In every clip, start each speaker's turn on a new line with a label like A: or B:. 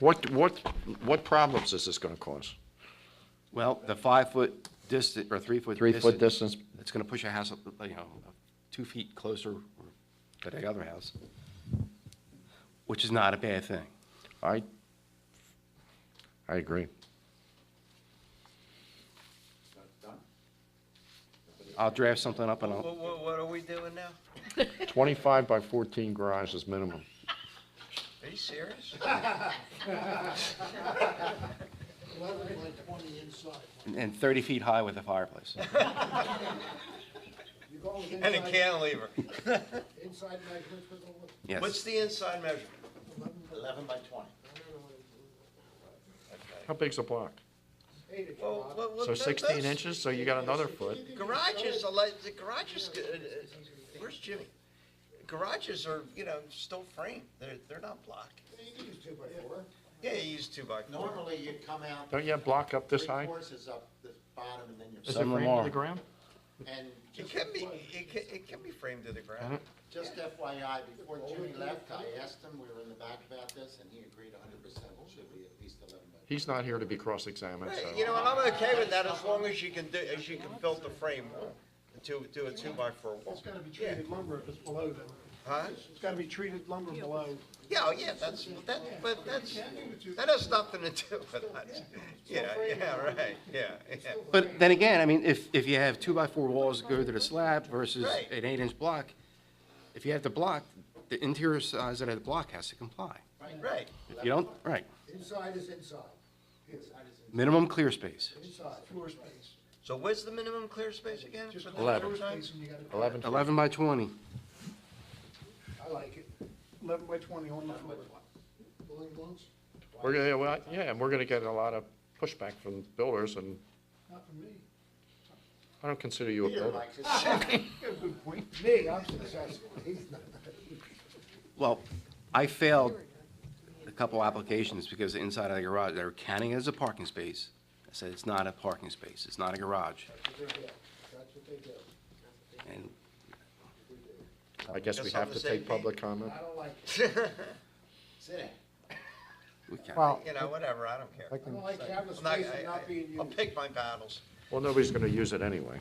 A: What, what, what problems is this gonna cause?
B: Well, the five-foot distance, or three-foot distance.
A: Three-foot distance,
B: It's gonna push a house, up, you know, two feet closer to the other house, which is not a bad thing.
A: I, I agree.
B: I'll draft something up and I'll,
C: What, what, what are we doing now?
A: Twenty-five by fourteen garage is minimum.
C: Are you serious?
D: Eleven by twenty inside.
B: and thirty feet high with a fireplace.
D: You're going
C: And
D: with
C: a
D: inside,
C: cantilever.
D: inside measurements with the, with
C: What's
B: Yes,
C: the inside measure? Eleven by twenty.
A: How big's a block?
D: eight inch
C: Well,
D: block.
C: well, well,
A: So
C: that-
A: sixteen
C: that's-
A: inches, so you got another foot.
C: Garages, are like- the garages, uh, uh, where's Jimmy? Garages are, you know, still framed. They're, they're not block.
D: You can use two by four.
C: Yeah, you use two by four.
E: Normally, you come out
A: Don't you have block up this
E: three
A: high?
E: courses up the bottom, and then you're,
A: Is it
B: Some
A: framed to
B: are.
A: the ground?
E: and
C: It
E: just
C: can be,
E: FYI
C: it can, it can be framed to the ground.
E: just FYI, before Jimmy left, I asked him, we were in the back about this, and he agreed hundred percent it should be at least eleven by
A: He's not here to be cross-examined,
C: Right,
A: so.
C: You know, and I'm okay with that as long as you can do, as you can build the frame wall to, to a two by four wall.
D: It's gotta be treated lumber if it's below that.
C: Huh?
D: It's gotta be treated lumber below.
C: Yeah, oh, yeah, that's, that, but that's, that has nothing to do with that. Yeah, yeah, right, yeah, yeah.
B: but then again, I mean, if, if you have two-by-four walls that go to the slab versus
C: Right.
B: an eight-inch block, if you have the block, the interior size of the block has to comply.
C: Right,
B: If you don't, right,
D: Inside is inside,
B: minimum clear space,
D: inside. Floor space.
C: so where's the minimum clear space again? for the
A: Eleven.
C: floor
D: Space
C: size?
D: and you gotta,
A: Eleven,
B: eleven by twenty.
D: I like it. Eleven by twenty on the floor. Bowling balls?
A: we're gonna, yeah, well, yeah, and we're gonna get a lot of pushback from builders, and
D: Not for me.
A: I don't consider you a
E: Peter
A: builder.
E: likes it.
D: You got a good point. Me, I'm successful. He's not.
B: Well, I failed a couple applications because the inside of the garage, they were counting it as a parking space. I said, it's not a parking space, it's not a garage.
D: That's what they do. That's what they do.
B: And
A: I guess we
C: Just on
A: have
C: the
A: to
C: same
A: take public comment.
D: I don't like it.
E: Sitting.
B: we counted.
F: Well,
C: You know, whatever, I don't care.
D: I don't like having
C: I'm not,
D: space and
C: I,
D: not being
C: will
D: used.
C: pick my battles.
A: Well, nobody's gonna use it anyway.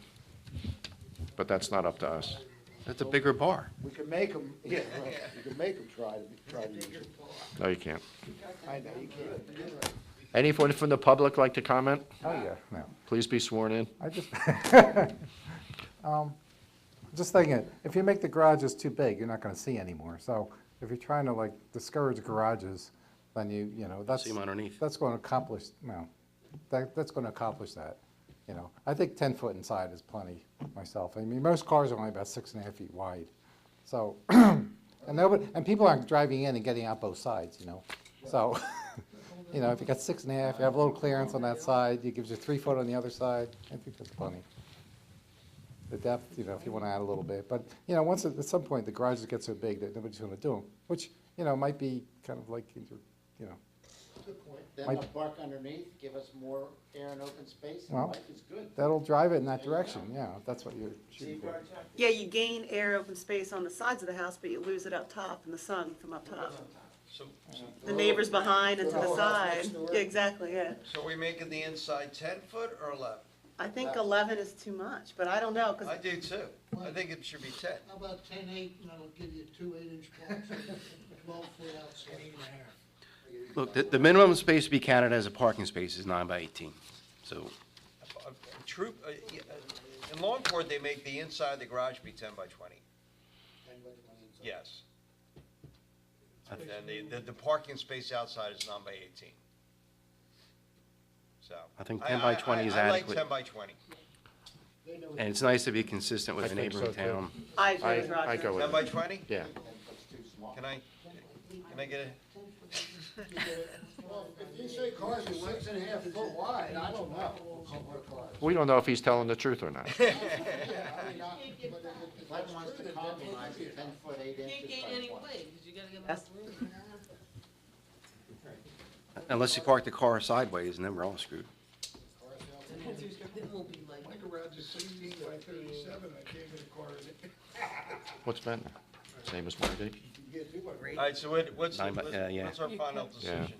A: But that's not up to us.
B: That's a bigger bar.
D: We can make them, yeah, well, we can make them try to, try to use it.
A: No, you can't.
D: I know, you can't.
A: Anyone from the public like to comment?
F: oh yeah, no.
A: Please be sworn in.
F: I just, Um, just thinking, if you make the garages too big, you're not gonna see anymore. So if you're trying to like discourage garages, then you, you know, that's.
B: See 'em underneath.
F: That's gonna accomplish, no, that, that's gonna accomplish that, you know. I think ten foot inside is plenty myself. I mean, most cars are only about six and a half feet wide. So, and nobody, and people aren't driving in and getting out both sides, you know? So, you know, if you got six and a half, you have a little clearance on that side, you gives you three foot on the other side, I think that's plenty. The depth, you know, if you want to add a little bit, but, you know, once, at at some point, the garages get so big that nobody's gonna do them, which, you know, might be kind of like, in your- you know,
E: Then
F: My-
E: the park underneath, give us more air and open space, and
F: Well,
E: life is good.
F: that'll drive it in that direction, yeah, if that's what you're shooting for.
G: Yeah, you gain air, open space on the sides of the house, but you lose it up top in the sun from up top.
C: So,
G: The neighbors behind and to the
D: whole house
G: side.
D: next door.
G: Yeah, exactly, yeah.
C: so we making the inside ten foot or eleven?
G: I think eleven is too much, but I don't know,
C: I
G: because,
C: do too. I think it should be ten.
D: How about ten eight, and that'll give you two eight inch blocks, twelve foot outside. Eight and a half.
B: Look, the, the minimum space to be counted as a parking space is nine by eighteen. So,
C: A- a Troop, uh, yeah, uh, in Longport, they make the inside of the garage be ten by twenty,
D: Ten by twenty inside.
C: yes. And then the, the- the parking space outside is nine by eighteen. So.
B: I think 10 by
C: I-
B: 20 is
C: I-
B: adequate.
C: I like ten by twenty.
D: They know
B: and it's nice to be consistent
A: I
B: with a
A: think so,
B: neighboring
A: too.
B: town.
G: I agree
A: I,
G: with
A: I
G: Roger.
A: go
C: Ten
A: with
C: by
A: it.
C: twenty?
A: Yeah.
E: That's too small.
C: Can I, can I get a,
D: Well, If you say cars are six and a half foot wide, I don't know. Couple of cars.
A: We don't know if he's telling the truth or not.
D: Yeah, I mean, I- but if- if
E: Glenn
D: that's
E: wants
D: true,
E: to
D: then that would
E: compromise
D: be
E: at
D: it.
E: ten foot eight
H: Can't
E: inches
H: gain
E: by
H: any
E: twenty.
H: weight, because you gotta get
G: That's-
H: enough room.
B: Unless you park the car sideways and then we're all screwed.
H: It will be like.
D: My garage is sixteen by thirty-seven, I can't get a car in it.
A: What's been there? Same as mine, Dave?
D: You can get two by
C: all right, so what, what's, the-
B: Nine by- uh, yeah.
C: what's our final
A: Yeah.
C: decision?